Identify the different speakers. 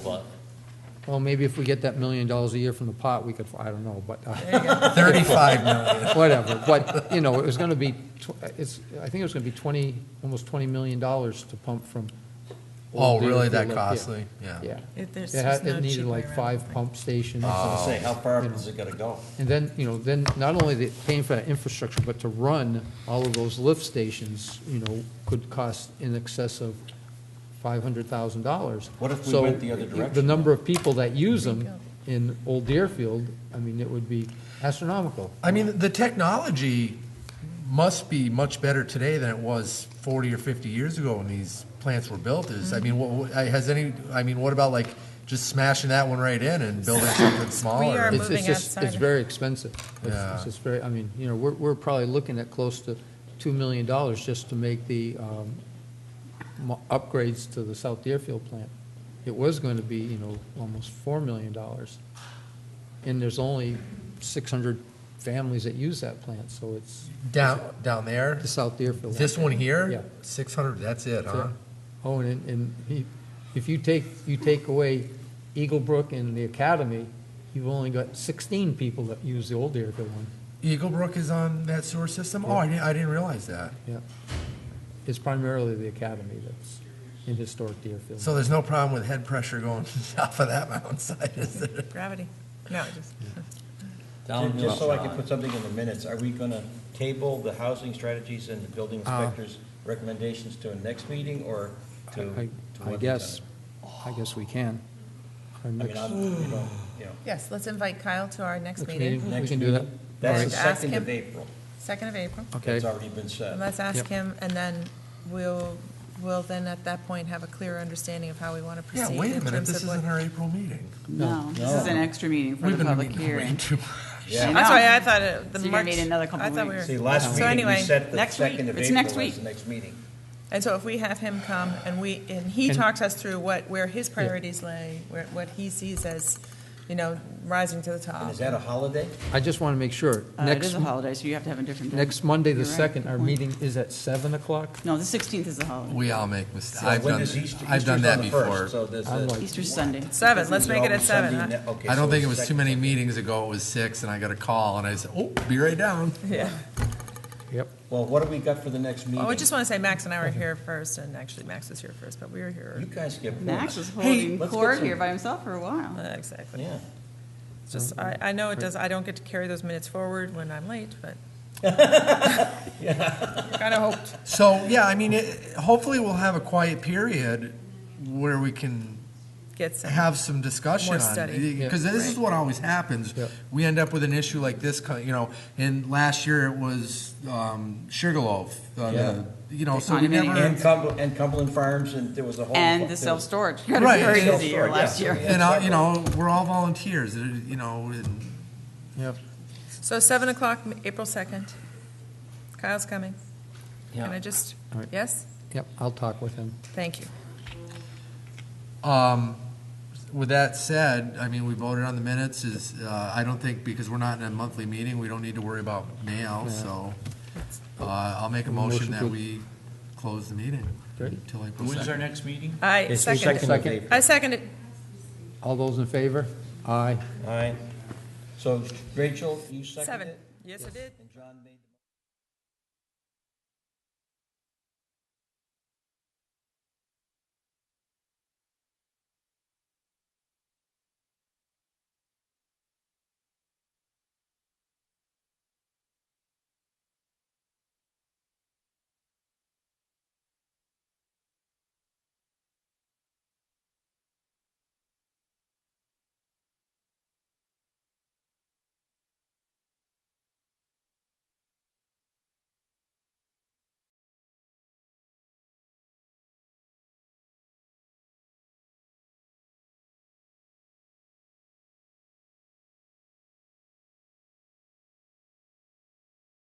Speaker 1: But
Speaker 2: Well, maybe if we get that million dollars a year from the pot, we could, I don't know, but, uh,
Speaker 3: 35 million.
Speaker 2: whatever. But, you know, it was gonna be, tw- it's, I think it was gonna be twenty, almost twenty million dollars to pump from.
Speaker 3: Oh,
Speaker 2: Old
Speaker 3: really?
Speaker 2: Deerfield
Speaker 3: That
Speaker 2: up here.
Speaker 3: costly? Yeah.
Speaker 2: Yeah.
Speaker 4: It- there's
Speaker 2: It had,
Speaker 4: just no
Speaker 2: it needed
Speaker 4: cheap way
Speaker 2: like
Speaker 4: around
Speaker 2: five
Speaker 4: it.
Speaker 2: pump stations.
Speaker 1: I
Speaker 3: Oh.
Speaker 1: was gonna say, how far up is it gonna go?
Speaker 2: And then, you know, then not only the paying for that infrastructure, but to run all of those lift stations, you know, could cost in excess of five hundred thousand dollars.
Speaker 1: What if we went the other
Speaker 2: The
Speaker 1: direction?
Speaker 2: number of people that use them in Old Deerfield, I mean, it would be astronomical.
Speaker 3: I mean, the technology must be much better today than it was 40 or 50 years ago when these plants were built is, I mean, what- what, I- has any, I mean, what about like just smashing that one right in and building something
Speaker 4: are
Speaker 3: smaller?
Speaker 2: It's-
Speaker 4: moving
Speaker 2: it's just- It's
Speaker 4: outside.
Speaker 2: very expensive. It's-
Speaker 3: Yeah.
Speaker 2: It's just very, I mean, you know, we're, we're probably looking at close to two million dollars just to make the, um, mo- upgrades to the South Deerfield plant. It was going to be, you know, almost four million dollars. And there's only six hundred families that use that plant, so it's
Speaker 3: Down, down there?
Speaker 2: the South Deerfield.
Speaker 3: This one here?
Speaker 2: Yeah.
Speaker 3: 600, that's it, huh?
Speaker 2: Oh, and, and he- if you take, you take away Eagle Brook and the Academy, you've only got sixteen people that use the old Deerfield one.
Speaker 3: Eagle Brook is on that sewer system? Oh, I didn't, I didn't realize that.
Speaker 2: Yeah. It's primarily the academy that's in historic Deerfield.
Speaker 3: So there's no problem with head pressure going off of that mountainside, is there?
Speaker 4: Gravity. No, just,
Speaker 1: Ju- Just so I can put something in the minutes, are we gonna table the housing strategies and the building
Speaker 3: Uh.
Speaker 1: inspector's recommendations to a next meeting or to?
Speaker 2: I,
Speaker 1: to
Speaker 2: I
Speaker 1: one
Speaker 2: guess,
Speaker 1: time?
Speaker 2: I guess we can.
Speaker 1: I
Speaker 2: Our
Speaker 1: mean,
Speaker 2: next,
Speaker 1: I'm, you know, you know,
Speaker 4: yes, let's invite Kyle to our next
Speaker 2: next
Speaker 4: meeting,
Speaker 2: meeting, we
Speaker 1: Next
Speaker 2: can do that.
Speaker 1: meeting.
Speaker 2: All
Speaker 1: that's the
Speaker 2: right,
Speaker 4: Ask
Speaker 1: second
Speaker 4: him.
Speaker 1: of April.
Speaker 4: 2nd of April.
Speaker 2: Okay,
Speaker 1: It's already been
Speaker 4: And
Speaker 1: said.
Speaker 4: Let's ask
Speaker 2: Yep.
Speaker 4: him, and then we'll, we'll then at that point have a clear understanding of how we want to
Speaker 3: Yeah,
Speaker 4: proceed
Speaker 3: wait a
Speaker 4: in
Speaker 3: minute,
Speaker 4: terms
Speaker 3: this
Speaker 4: of what.
Speaker 3: isn't our April meeting.
Speaker 5: No, this is an extra meeting for
Speaker 3: We've
Speaker 5: the
Speaker 3: been
Speaker 5: public
Speaker 3: meeting way
Speaker 5: hearing.
Speaker 3: too much.
Speaker 1: Yeah.
Speaker 4: That's why I thought it, the
Speaker 5: So you're
Speaker 4: March.
Speaker 5: gonna need another couple
Speaker 4: I thought we
Speaker 5: weeks.
Speaker 4: were-
Speaker 1: See, last
Speaker 4: So
Speaker 1: meeting, we
Speaker 4: anyway,
Speaker 1: set the
Speaker 5: next week.
Speaker 1: second of
Speaker 5: It's next
Speaker 1: April as
Speaker 5: week.
Speaker 1: the next meeting.
Speaker 4: And so if we have him come and we, and he
Speaker 2: And-
Speaker 4: talks us through what, where his priorities lay, where, what he sees as, you know, rising to the
Speaker 1: And
Speaker 4: top.
Speaker 1: is that a holiday?
Speaker 2: I just want to make sure.
Speaker 5: Uh, It
Speaker 2: Next,
Speaker 5: is a holiday, so you have to have a different. day.
Speaker 2: next Monday, the
Speaker 5: You're right,
Speaker 2: second,
Speaker 5: good
Speaker 2: our
Speaker 5: point.
Speaker 2: meeting is at seven o'clock.
Speaker 5: No, the 16th is the holiday.
Speaker 3: We all make mistakes.
Speaker 1: So
Speaker 3: I've
Speaker 1: Uh, when
Speaker 3: done,
Speaker 1: does Easter-
Speaker 3: I've done
Speaker 1: Easter's
Speaker 3: that
Speaker 1: on the first,
Speaker 3: before.
Speaker 1: So this
Speaker 2: I'm
Speaker 1: is.
Speaker 2: like-
Speaker 5: Easter Sunday.
Speaker 4: Seven, let's
Speaker 1: is
Speaker 4: make it at
Speaker 1: always
Speaker 4: seven,
Speaker 1: Sunday,
Speaker 4: huh?
Speaker 1: ne- okay,
Speaker 3: I
Speaker 1: so
Speaker 3: don't think it
Speaker 1: the
Speaker 3: was too
Speaker 1: second
Speaker 3: many
Speaker 1: of April.
Speaker 3: meetings ago, it was six, and I got a call, and I said, oh, be right down.
Speaker 4: Yeah.
Speaker 2: Yep.
Speaker 1: Well, what do we got for the next meeting?
Speaker 4: Well, I just want to say Max and I were here first, and actually Max was here first, but we were
Speaker 1: You
Speaker 4: here.
Speaker 1: guys get points.
Speaker 5: Max was
Speaker 1: Hey,
Speaker 5: holding
Speaker 1: let's get
Speaker 5: court
Speaker 1: some-
Speaker 5: here by himself for a while.
Speaker 4: Uh, Exactly.
Speaker 1: Yeah.
Speaker 4: It's Just, I, I know it does, I don't get to carry those minutes forward when I'm late, but. Kind of hoped.
Speaker 3: So, yeah, I mean, it- hopefully we'll have a quiet period where we can
Speaker 4: Get some.
Speaker 3: have some discussion
Speaker 4: More
Speaker 3: on
Speaker 4: study.
Speaker 3: it. Because this is what always happens.
Speaker 2: Yeah.
Speaker 3: We end up with an issue like this, co- you know, and last year it was um, Sugarloaf. uh,
Speaker 1: Yeah.
Speaker 3: the- You know, so we
Speaker 5: Condominium.
Speaker 3: never,
Speaker 1: And Cumberland, and Cumberland Farms, and there was a whole.
Speaker 5: And the
Speaker 1: there was-
Speaker 5: self-storage. You had a
Speaker 3: Right.
Speaker 5: very busy year
Speaker 1: Self-storage, yeah.
Speaker 5: last year.
Speaker 3: and, I- you know, we're all volunteers, uh, you know, and
Speaker 2: Yep.
Speaker 4: So seven o'clock, M- April second. Kyle's coming.
Speaker 1: Yeah.
Speaker 4: Can I just,
Speaker 2: All right.
Speaker 4: yes?
Speaker 2: Yep, I'll talk with him.
Speaker 4: Thank you.
Speaker 3: Um, With that said, I mean, we voted on the minutes is, uh, I don't think, because we're not in a monthly meeting, we don't need to worry about mail, so uh, I'll make a
Speaker 2: Motion
Speaker 3: motion that
Speaker 2: to-
Speaker 3: we close the meeting
Speaker 2: Great.
Speaker 3: until April
Speaker 6: When's our
Speaker 3: 2nd.
Speaker 6: next meeting?
Speaker 4: I
Speaker 1: It's the second
Speaker 4: second.
Speaker 1: of
Speaker 2: Second.
Speaker 1: April.
Speaker 4: I second it.
Speaker 2: All those in favor? Aye.
Speaker 1: All right. So Rachel, you seconded
Speaker 4: Seven.
Speaker 1: it?
Speaker 4: Yes, I did.
Speaker 1: And John made